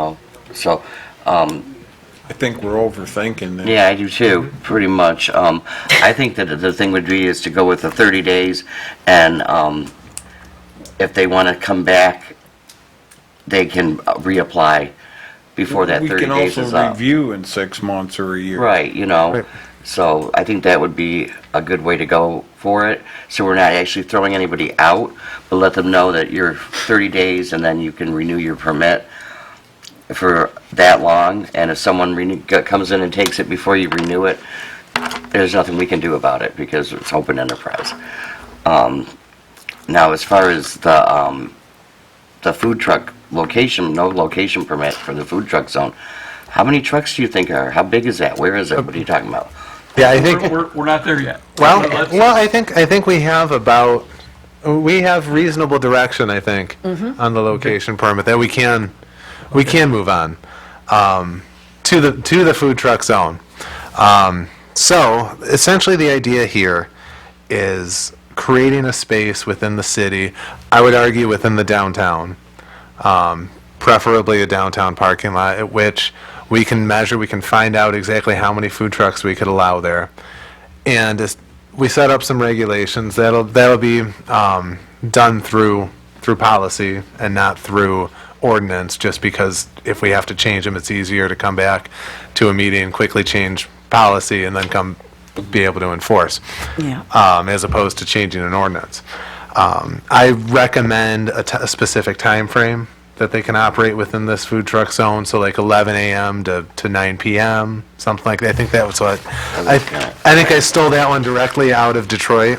Oh, So, um, I think we're overthinking this. yeah, I do too, pretty much. Um, I think that the thing would be is to go with the 30 days, and um, if they want to come back, they can uh, reapply before that 30 days We is can also up. review in six months or a year. Right, you know, Right. so I think that would be a good way to go for it. So we're not actually throwing anybody out, but let them know that you're 30 days and then you can renew your permit for that long. And if someone renew- g- comes in and takes it before you renew it, there's nothing we can do about it because it's open enterprise. Um, Now, as far as the, um, the food truck location, no location permit for the food truck zone, how many trucks do you think are, how big is that? Where is it? What are you talking about? Yeah, I We're, think, we're- we're not there yet. well, Let's- well, I think, I think we have about, we have reasonable direction, I think, on the location permit, that we can, we can move on um, to the, to the food truck zone. Um, So essentially, the idea here is creating a space within the city, I would argue within the downtown, um, preferably a downtown parking lot at which we can measure, we can find out exactly how many food trucks we could allow there. And as- we set up some regulations that'll, that'll be um, done through, through policy and not through ordinance, just because if we have to change them, it's easier to come back to a meeting, quickly change policy, and then come, be able to enforce Yeah. Uh, um, as opposed to changing an ordinance. Um, I recommend a ti- a specific time frame that they can operate within this food truck zone, so like 11 a.m. to, to 9 p.m., something like that. I think that was what, I, I think I stole that one directly out of Detroit,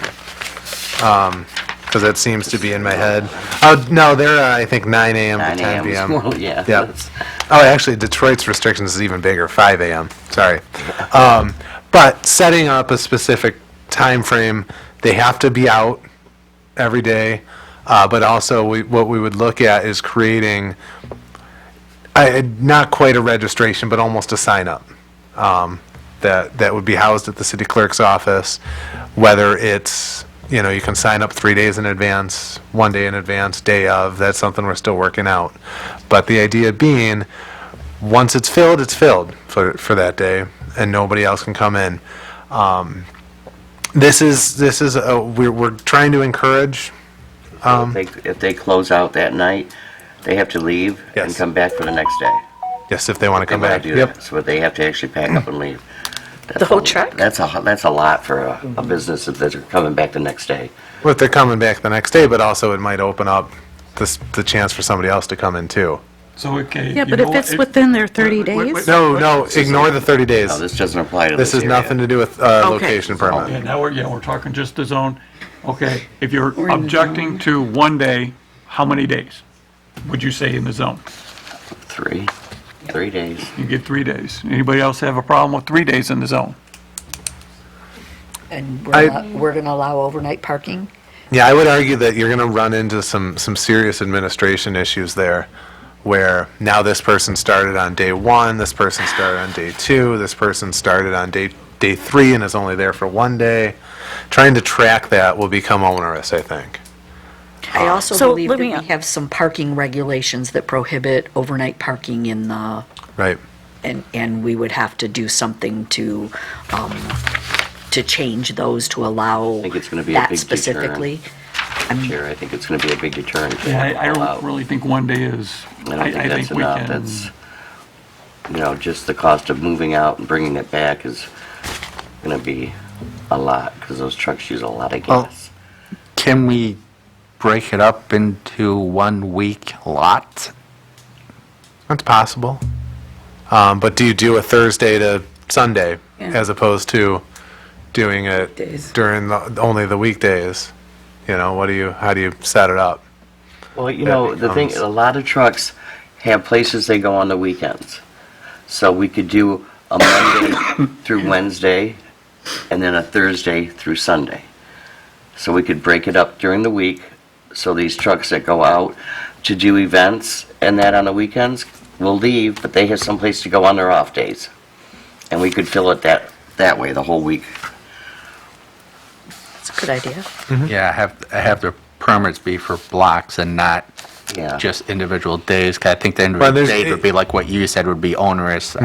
because that seems to be in my head. Oh, no, they're, uh, I think, 9 a.m. to 9 10 a.m. is p.m. more- yeah, Yep. that's- Oh, actually, Detroit's restrictions is even bigger, 5 a.m., sorry. Um, But setting up a specific time frame, they have to be out every day, uh, but also, we- what we would look at is creating, I- I- not quite a registration, but almost a sign-up that, that would be housed at the city clerk's office, whether it's, you know, you can sign up three days in advance, one day in advance, day of, that's something we're still working out. But the idea being, once it's filled, it's filled for, for that day, and nobody else can come in. Um, This is, this is, a- we're, we're trying to encourage, If Um, they, if they close out that night, they have to leave and Yes. come back for the next day. yes, if they want to They come wanna back. do Yep. that, so they have to actually pack up and leave. That's The whole a- truck? That's a, ho- that's a lot for a, a business if they're coming back the next day. Well, if they're coming back the next day, but also it might open up this, the chance for somebody else to come in too. So, okay. Yeah, you but know if what? it's within their 30 Wait, wait, days, wait. No, no, ignore the 30 days. No, this doesn't apply to this This is area. nothing to do with uh, Okay. location Yeah, permit. now we're, yeah, we're talking just the zone. Okay, if you're objecting to one day, how many days would you say in the zone? Three, three days. You get three days. Anybody else have a problem with three days in the zone? And I- we're, not- we're going to allow overnight parking? Yeah, I would argue that you're going to run into some, some serious administration issues there, where now this person started on day one, this person started on day two, this person started on day, day three and is only there for one day. Trying to track that will become onerous, I think. I also So believe let that me- we have some parking regulations that prohibit overnight parking in the, Right. and, and we would have to do something to, um, to change those to allow think it's gonna be a that big deterrent. specifically. Chair, I think it's going to be a big deterrent. to Yeah, I, I all don't out. really think one day is. I don't think that's we enough. can- That's, you know, just the cost of moving out and bringing it back is going to be a lot because those trucks use a lot of Well- gas. Can we break it up into one-week lot? That's possible. Um, But do you do a Thursday to Sunday as opposed to doing it during the, only the weekdays? You know, what do you, how do you set it up? Well, you know, the thing, becomes- a lot of trucks have places they go on the weekends. So we could do a Monday through Wednesday and then a Thursday through Sunday. So we could break it up during the week, so these trucks that go out to do events and that on the weekends will leave, but they have someplace to go on their off days. And we could fill it that, that way the whole week. That's a good idea. Yeah, have, have their permits be for blocks and not Yeah. just individual days. 'Cause I think the Well, individual there's- days would be like what you said would be onerous.